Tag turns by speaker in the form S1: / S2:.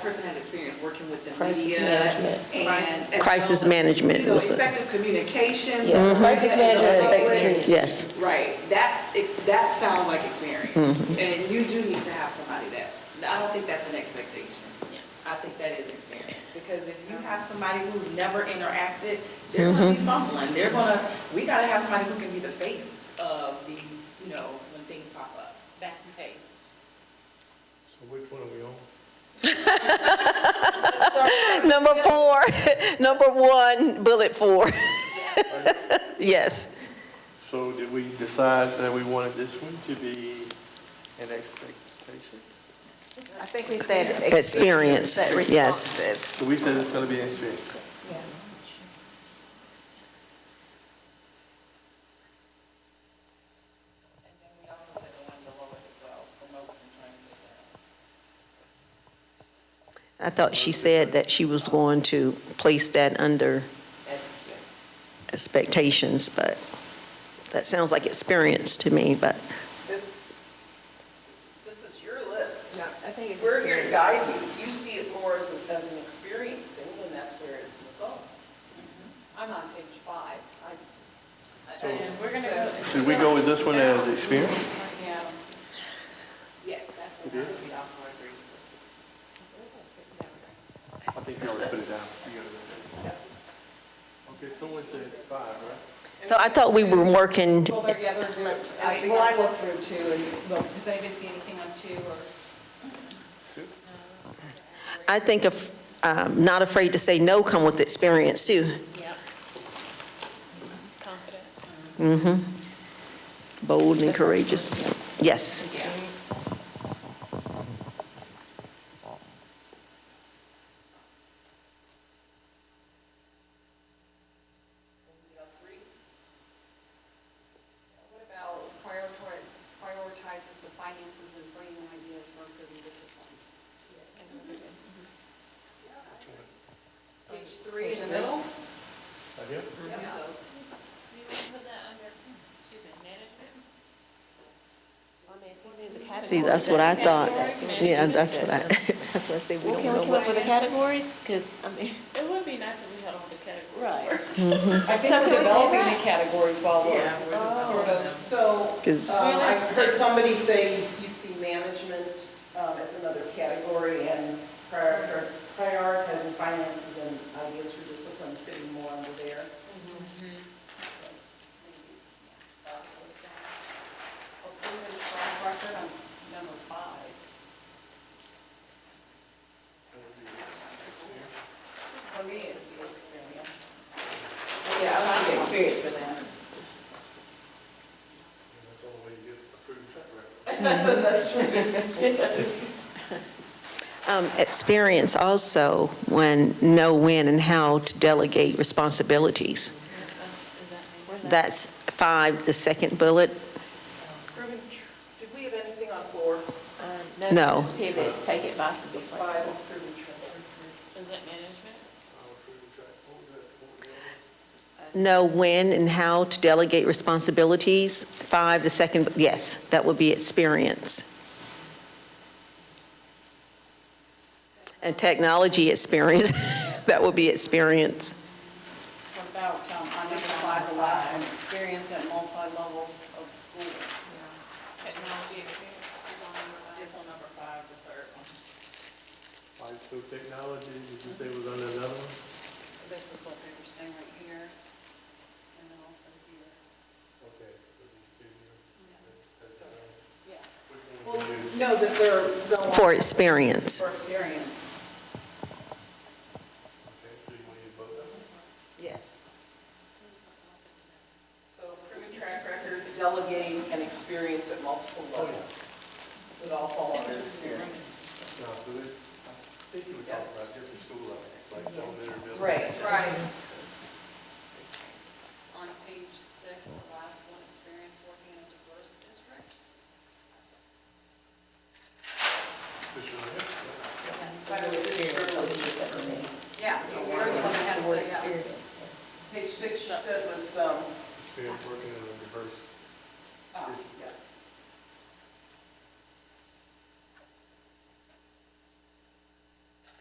S1: person has experience working with the
S2: Crisis
S1: media
S2: management.
S1: and. and
S3: Crisis
S1: so,
S3: management
S1: You know,
S3: was good.
S1: effective communication.
S2: Yeah, crisis
S1: with the
S2: management and effective
S1: public.
S2: communication.
S3: Yes,
S1: Right, that's, it- that sounds like experience.
S2: Mm-hmm.
S1: And you do need to have somebody that, I don't think that's an expectation. I think that is experience, because if you have somebody who's never interacted, they're gonna
S2: Mm-hmm.
S1: be fumbling, they're gonna, we gotta have somebody who can be the face of these, you know, when things pop up.
S4: That's face.
S5: So which one are we on?
S3: number four, number one, bullet four. Yes,
S5: So did we decide that we wanted this one to be an expectation?
S2: I think we said.
S3: Experience,
S2: that
S3: yes.
S2: responsive.
S5: So we said it's gonna be an experience.
S4: And then we also said the one below it as well, promotes and trains as well.
S3: I thought she said that she was going to place that under expectations, but that sounds like experience to me, but
S6: This is your list.
S2: I think it's
S6: We're here to guide you. If you see it more as, as an experience thing, then that's where it will go. Mm-hmm. I'm on page five.
S4: And we're gonna go.
S5: Should we go with this one as experience?
S4: Yeah.
S1: Yes, that's what I would also agree.
S5: I think you already put it down. You gotta go with it. Okay, someone said five, right?
S3: So I thought we were working,
S4: Well, they're, yeah, they're doing.
S6: I think
S4: Well,
S6: I
S4: I will,
S6: look through two and, well,
S4: does anybody see anything on two or?
S3: I think of, um, not afraid to say no come with experience too.
S4: Yeah. Confidence.
S3: Mm-hmm. Bold and courageous. Yes.
S7: What about prioritize- prioritizes the finances and bringing ideas work and discipline? Page three in the middle?
S5: Right here?
S8: You would put that under student management?
S3: See, that's what I thought. Yeah, that's what I, that's what I say, we don't know what.
S2: up with the categories? Because, I mean.
S8: It would be nice if we had all the categories.
S2: Right.
S6: I think
S2: So can we
S6: we're
S2: do
S6: developing
S2: that?
S6: the categories while we're
S1: Yeah,
S6: sort of, so,
S3: Because-
S6: um, I've heard somebody say you see management um, as another category and prior- prioritizing finances and ideas for discipline fitting more under there.
S7: A proven track record on number five. For me, it'd be experience.
S1: Yeah, I like the experience for that.
S5: That's the only way you get approved track record.
S3: Um, Experience also when, know when and how to delegate responsibilities.
S8: That's- is that me?
S3: That's five, the second bullet.
S6: Ruben, did we have anything on four?
S8: Um,
S3: No.
S2: Pivot, take it by some
S6: Five
S2: difference.
S6: is proven transfer.
S8: Is that management?
S5: I'll approve track. What was that? What was the other one?
S3: Know when and how to delegate responsibilities. Five, the second, yes, that would be experience. And technology experience, that would be experience.
S7: What about um, on number five, the last one, experience at multi-levels of schooling?
S8: Technology experience is on number five.
S4: It's on number five, the third one.
S5: All right, so technology, did you say was under another one?
S7: This is what they were saying right here, and then also here,
S5: Okay. so these two here.
S7: yes,
S5: That's,
S7: so,
S5: uh,
S7: yes.
S5: which one
S7: Well,
S5: would you use?
S7: no, that they're going.
S3: For experience.
S7: For experience.
S5: Okay, so you want to use both of them?
S2: Yes.
S6: So proven track record, delegating and experience at multiple levels. Would all fall under experience.
S5: No, so they, I think you were talking
S6: Yes.
S5: about different school levels, like elementary, middle.
S6: Right.
S7: On page six, the last one, experience working in a diverse district.
S5: This one here?
S7: Yes.
S6: By the way, this is very legit for me.
S7: Yeah, you're the one that has to, yeah.
S6: Page six, you said was, um,
S5: Experience working in a diverse
S1: Ah.